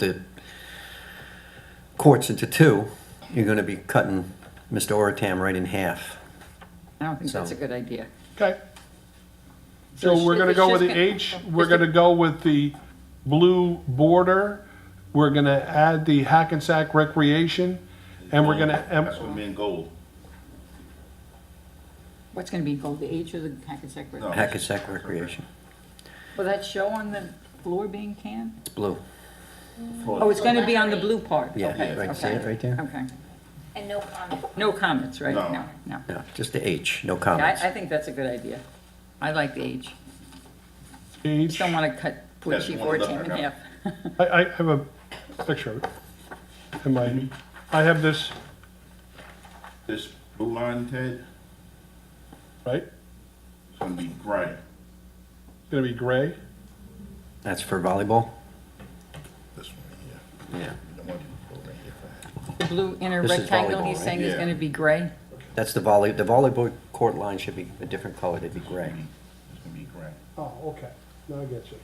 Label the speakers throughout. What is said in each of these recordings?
Speaker 1: the courts into two, you're gonna be cutting Mr. Oratam right in half.
Speaker 2: I don't think that's a
Speaker 1: So-
Speaker 2: good idea.
Speaker 3: Okay.
Speaker 2: So
Speaker 3: So we're
Speaker 2: it's
Speaker 3: gonna go
Speaker 2: just
Speaker 3: with the
Speaker 2: gonna-
Speaker 3: H, we're
Speaker 2: just
Speaker 3: gonna go with the blue border, we're gonna add the Hackensack Recreation, and we're gonna,
Speaker 4: Um, That's
Speaker 3: em-
Speaker 4: what mean gold.
Speaker 2: What's gonna be called, the H or the Hackensack River?
Speaker 4: No.
Speaker 1: Hackensack Recreation,
Speaker 2: Will that show on the floor being canned?
Speaker 1: it's blue.
Speaker 2: Oh, it's gonna be on the blue part?
Speaker 1: Yeah,
Speaker 2: Okay,
Speaker 1: right, see
Speaker 2: okay.
Speaker 1: it right there?
Speaker 2: Okay.
Speaker 5: And no comment.
Speaker 2: No comments, right?
Speaker 4: No.
Speaker 2: No, no.
Speaker 1: No, just the H, no
Speaker 2: Yeah,
Speaker 1: comments.
Speaker 2: I, I think that's a good idea. I like the H.
Speaker 3: H.
Speaker 2: Just don't wanna cut poor
Speaker 4: That's
Speaker 2: Chief
Speaker 4: one of the-
Speaker 2: Ortam in half.
Speaker 3: I, I have a picture of it in my, I have this,
Speaker 4: This blue line, Ted,
Speaker 3: right?
Speaker 4: it's gonna be gray.
Speaker 3: It's gonna be gray.
Speaker 1: That's for volleyball?
Speaker 4: This one here.
Speaker 1: Yeah.
Speaker 4: You don't want to go right here.
Speaker 2: The blue inner
Speaker 1: This is
Speaker 2: rectangle,
Speaker 1: volleyball,
Speaker 2: he's
Speaker 1: right?
Speaker 2: saying is
Speaker 4: Yeah.
Speaker 2: gonna be gray?
Speaker 1: That's the volley, the volleyball court line should be a different color, it'd be gray.
Speaker 4: It's gonna be gray.
Speaker 3: Oh, okay, now I get you.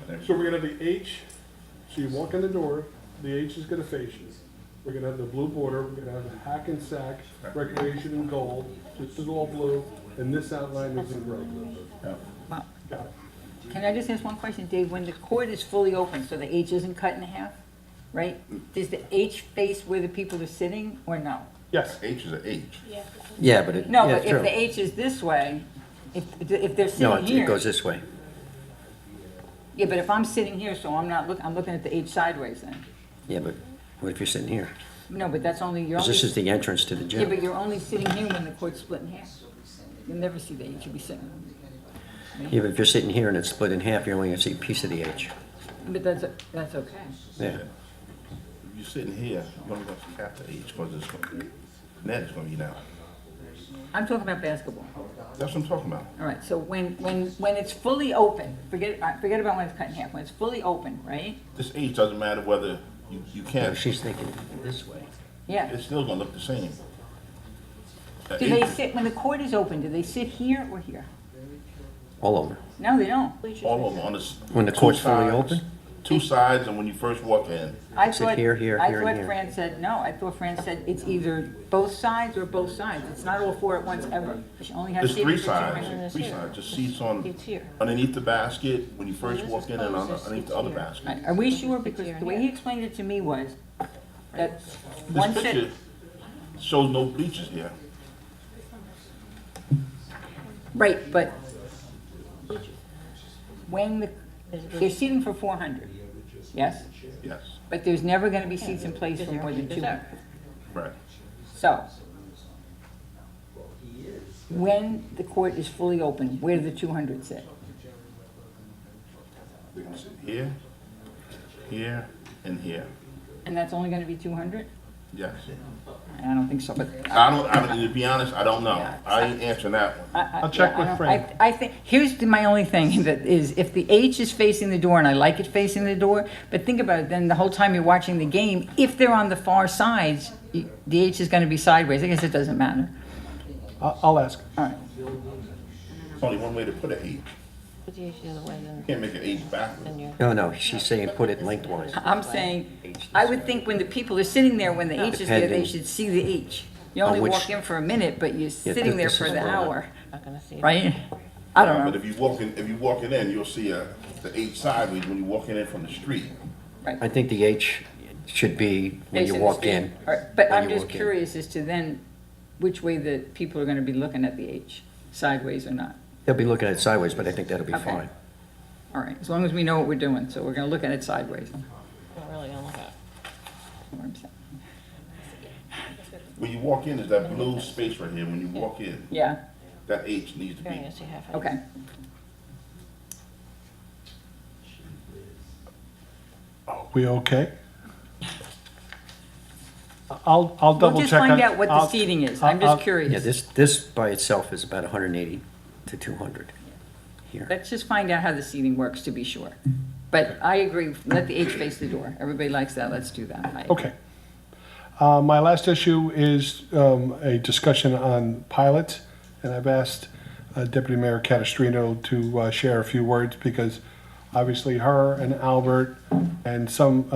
Speaker 4: But every-
Speaker 3: So we're gonna have the H, so you walk in the door, the H is gonna face you. We're gonna have the blue border, we're gonna have the hack and sack, recreation in gold, this is all blue, and this outline is in red.
Speaker 2: Wow.
Speaker 3: Got it.
Speaker 2: Can I just ask one question, Dave? When the court is fully open, so the H isn't cut in half, right? Does the H face where the people are sitting or no?
Speaker 3: Yes,
Speaker 4: H is a H.
Speaker 5: Yeah.
Speaker 1: Yeah, but it,
Speaker 2: No,
Speaker 1: yeah,
Speaker 2: but
Speaker 1: it's
Speaker 2: if
Speaker 1: true.
Speaker 2: the H is this way, if, if they're
Speaker 1: No,
Speaker 2: sitting
Speaker 1: it it
Speaker 2: here.
Speaker 1: goes this way.
Speaker 2: Yeah, but if I'm sitting here, so I'm not looking, I'm looking at the H sideways then.
Speaker 1: Yeah, but what if you're sitting here?
Speaker 2: No, but that's only, you're
Speaker 1: 'Cause
Speaker 2: only,
Speaker 1: this is the entrance to the
Speaker 2: yeah, but
Speaker 1: gym.
Speaker 2: you're only sitting here when the court's split in half. You'll never see the H, you'll be sitting.
Speaker 1: Yeah, but if you're sitting here and it's split in half, you're only gonna see a piece of the H.
Speaker 2: But that's, that's okay.
Speaker 1: Yeah.
Speaker 4: If you're sitting here, you're only gonna see half the H, cause it's gonna be, net is gonna be down.
Speaker 2: I'm talking about basketball.
Speaker 4: That's what I'm talking about.
Speaker 2: All right, so when, when, when it's fully open, forget, uh, forget about when it's cut in half, when it's fully open, right?
Speaker 4: This H doesn't matter whether you, you
Speaker 1: No,
Speaker 4: can't,
Speaker 1: She's thinking this way.
Speaker 2: Yeah.
Speaker 4: it's still gonna look the same. The
Speaker 2: Do they
Speaker 4: H-
Speaker 2: sit, when the court is open, do they sit here or here?
Speaker 1: All over.
Speaker 2: No, they don't.
Speaker 4: All of them on this.
Speaker 1: When the
Speaker 4: two
Speaker 1: court's fully
Speaker 4: sides-
Speaker 1: open?
Speaker 4: Two sides and when you first walk in.
Speaker 2: I
Speaker 1: Sit
Speaker 2: thought-
Speaker 1: here, here, here, and
Speaker 2: I thought
Speaker 1: here.
Speaker 2: Fran said, no, I thought Fran said it's either both sides or both sides. It's not all four at once ever. You only have
Speaker 4: There's
Speaker 2: seating
Speaker 4: three
Speaker 2: for two
Speaker 4: sides,
Speaker 2: rows.
Speaker 4: three sides, just seats on,
Speaker 5: It's here.
Speaker 4: underneath the basket, when you first walk in and on the- underneath the other
Speaker 2: All
Speaker 4: basket.
Speaker 2: right, Are we sure? Because
Speaker 5: Here and
Speaker 2: the way
Speaker 5: here.
Speaker 2: he explained it to me was that one
Speaker 4: This
Speaker 2: sit,
Speaker 4: picture shows no bleachers here.
Speaker 2: right, but when the, they're seating for four hundred, yes?
Speaker 4: Yes,
Speaker 2: But there's never gonna be seats in place for more than two hundred.
Speaker 4: right.
Speaker 2: So, when the court is fully open, where do the two hundred sit?
Speaker 4: They're gonna sit Here, here, and here,
Speaker 2: And that's only gonna be two hundred?
Speaker 4: yes.
Speaker 2: I don't think so, but.
Speaker 4: I don't, I don't, to be honest, I don't know. I ain't answering that one.
Speaker 2: I'll
Speaker 3: check with Fran.
Speaker 2: I I think, here's the- my only thing, that is, if the H is facing the door, and I like it facing the door, but think about it, then the whole time you're watching the game, if they're on the far sides, you- the H is gonna be sideways, I guess it doesn't matter.
Speaker 3: I'll, I'll ask.
Speaker 2: All right,
Speaker 4: There's only one way to put an H.
Speaker 5: Put the issue away then.
Speaker 4: You can't make an H backwards.
Speaker 1: No, no, she's saying put it lengthwise.
Speaker 2: I'm saying, I would think when the people are sitting there, when the H is there, they
Speaker 1: Depending.
Speaker 2: should see the H. You
Speaker 1: On
Speaker 2: only
Speaker 1: which-
Speaker 2: walk in for a minute, but you're sitting
Speaker 1: th-
Speaker 2: there
Speaker 1: this
Speaker 2: for
Speaker 1: is
Speaker 2: the
Speaker 1: for-
Speaker 2: hour,
Speaker 5: Not gonna see. it.
Speaker 2: right? I don't
Speaker 4: But
Speaker 2: know,
Speaker 4: if you walk in, if you walking in, you'll see a, the H sideways when you walking in from the street.
Speaker 1: I think the H should be when you
Speaker 2: Facing the
Speaker 1: walk
Speaker 2: street.
Speaker 1: in.
Speaker 2: All right, But
Speaker 1: when
Speaker 2: I'm
Speaker 1: you
Speaker 2: just
Speaker 1: walk in.
Speaker 2: curious as to then, which way the people are gonna be looking at the H, sideways or not?
Speaker 1: They'll be looking at it sideways, but I think that'll be
Speaker 2: Okay.
Speaker 1: fine.
Speaker 2: All right, as long as we know what we're doing, so we're gonna look at it sideways. that's
Speaker 5: Not really gonna look at.
Speaker 2: what I'm saying.
Speaker 4: When you walk in, is that blue space right here, when you walk in,
Speaker 2: Yeah,
Speaker 4: that H needs to
Speaker 5: You're only
Speaker 4: be
Speaker 5: gonna see half of it.
Speaker 2: okay.
Speaker 3: We okay? I'll, I'll
Speaker 2: We'll
Speaker 3: double
Speaker 2: just
Speaker 3: check.
Speaker 2: find
Speaker 3: on-
Speaker 2: out what the
Speaker 3: I'll-
Speaker 2: seating is,
Speaker 3: I'll-
Speaker 2: I'm just
Speaker 3: I'll-
Speaker 1: Yeah,
Speaker 2: curious.
Speaker 1: this, this by itself is about 180 to 200 here.
Speaker 2: Let's just find out how the seating works to be sure. But I agree, let the H face the door, everybody likes that, let's do that. I-
Speaker 3: Okay. Uh, My last issue is um, a discussion on pilots, and I've asked uh, Deputy Mayor Catastrino to uh, share a few words because obviously her and Albert and some